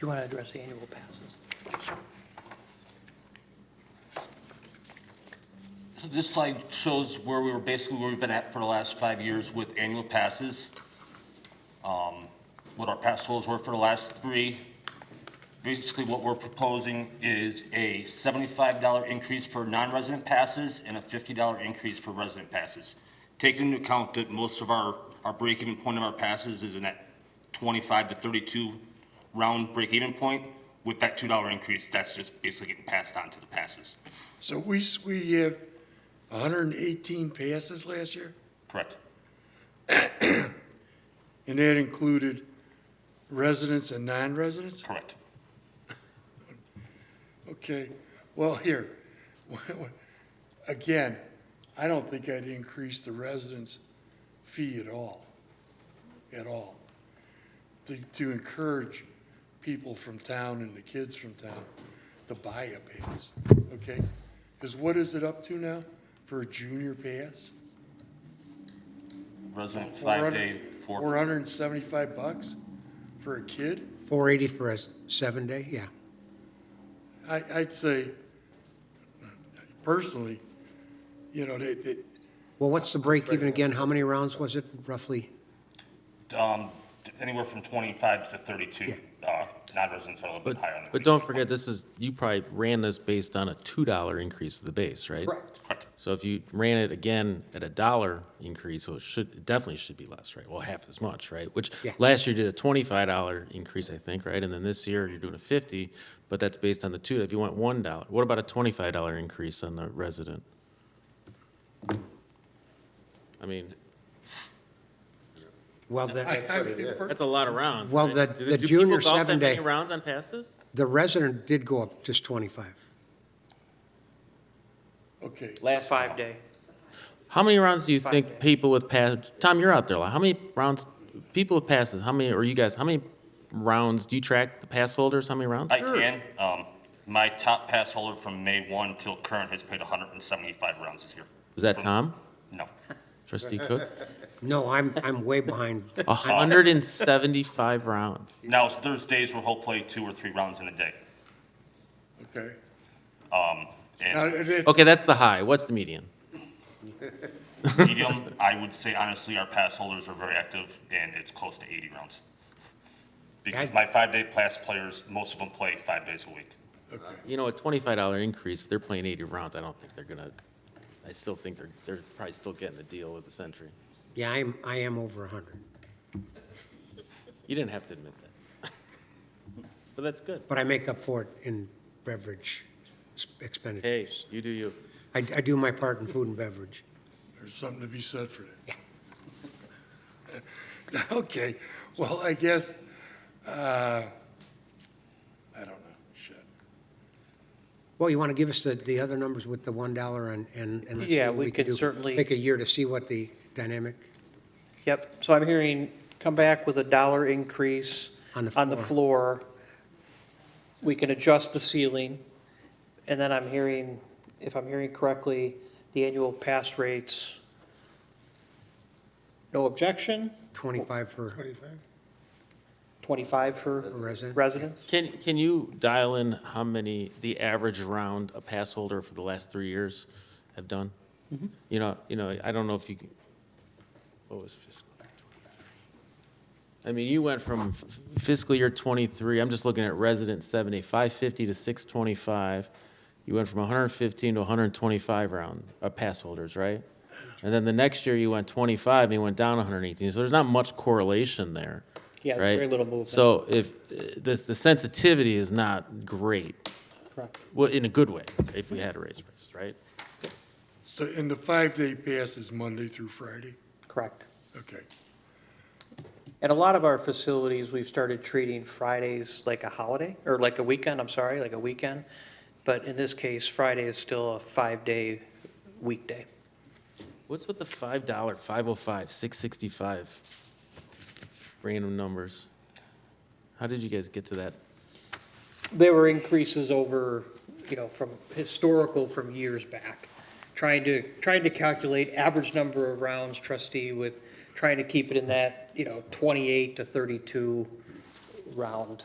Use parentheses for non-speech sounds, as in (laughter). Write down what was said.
you want to address the annual passes? So This slide shows where we were, basically where we've been at for the last five years with annual passes. um, What our pass holds were for the last three. Basically, what we're proposing is a $75 increase for non-resident passes and a $50 increase for resident passes. Taking into account that most of our, our break-even point of our passes is in that 25 to 32 round break-even point. With that $2 increase, that's just basically getting passed on to the passes. So we, s- we have 118 passes last year, Correct? and that included residents and non-residents? Correct. Okay, well, here, (laughs) again, I don't think I'd increase the residents' fee at all, at all, to, to encourage people from town and the kids from town to buy a pass, okay? Because what is it up to now for a junior pass? Resident five-day, Four four, hundred and seventy-five bucks for a kid? 480 for a seven-day, yeah. I, I'd say, personally, you know, they, they, Well, what's the break even again? How many rounds was it roughly? um, anywhere from twenty-five to thirty-two. Uh, non-residents are a little bit But, higher on the. but don't forget, this is, you probably ran this based on a $2 increase of the base, right? Correct. So if you ran it again at a dollar increase, so it should, it definitely should be less, right? Well, half as much, right? Which, Yeah. last year you did a $25 increase, I think, right? And then this year you're doing a 50, but that's based on the two, if you went $1, what about a $25 increase on the resident? I mean, Well, the, I, I mean, per- that's a lot of rounds. Well, right? Do- the- the do people junior golf that seven many day- Rounds on passes? the resident did go up just 25. okay, Last five day. How many rounds do you Five think days. people with pass? Tom, you're out there a lot. How many rounds? People with passes. How many? Or you guys? How many rounds do you track the pass holders? How many rounds? I can, um, my top pass holder from May one till current has played hundred and seventy-five rounds this year. Is that Tom? No, Trustee Cook. No, I'm, I'm way behind. (laughs) A hundred and seventy-five rounds. now, there's days where he'll play two or three rounds in a day. okay. Um, Now, and it- it- Okay, that's the high. What's the median? (laughs) medium, I would say honestly, our pass holders are very active and it's close to eighty rounds. Because That- my five-day pass players, most of them play five days a week. okay. You know, a twenty-five dollar increase. They're playing eighty rounds. I don't think they're gonna. I still think they're they're probably still getting the deal with the century. Yeah, I'm, I am over 100, You didn't have to admit that. (laughs) but that's good. but I make up for it in beverage s- expenditure. Hey, you do you. I, I do my part in food and beverage. There's something to be said for that. (laughs) Okay, well, I guess, uh, I don't know, shit. Well, you want to give us the, the other numbers with the $1 and, and and let's see Yeah, what we we can could do. certainly- Take a year to see what the dynamic, Yep, so I'm hearing, come back with a dollar increase On the on the floor. We can adjust the ceiling, and then I'm hearing, if I'm hearing correctly, the annual pass rates. No objection, 25 for 25 for for resident. residents? Can, can you dial in how many, the average round a pass holder for the last three years have done? You know, you know, I don't know if you, can- what was fiscal? year 23? I mean, you went from f- fiscal year 23, I'm just looking at resident 70, 550 to 625. You went from 115 to 125 round, uh, pass holders, right? And then the next year you went 25 and you went down 118. So there's not much correlation there. Yeah, right? very little movement. So if, uh, the, the sensitivity is not great, Correct. well, in a good way, if we had to raise prices, right? So, and the five-day pass is Monday through Friday? Correct. Okay, At a lot of our facilities, we've started treating Fridays like a holiday, or like a weekend, I'm sorry, like a weekend. But in this case, Friday is still a five-day weekday. What's with the five dollar, five oh five, six sixty-five random numbers? How did you guys get to that? There were increases over, you know, from historical, from years back. Trying to, trying to calculate average number of rounds trustee with, trying to keep it in that, you know, 28 to 32 round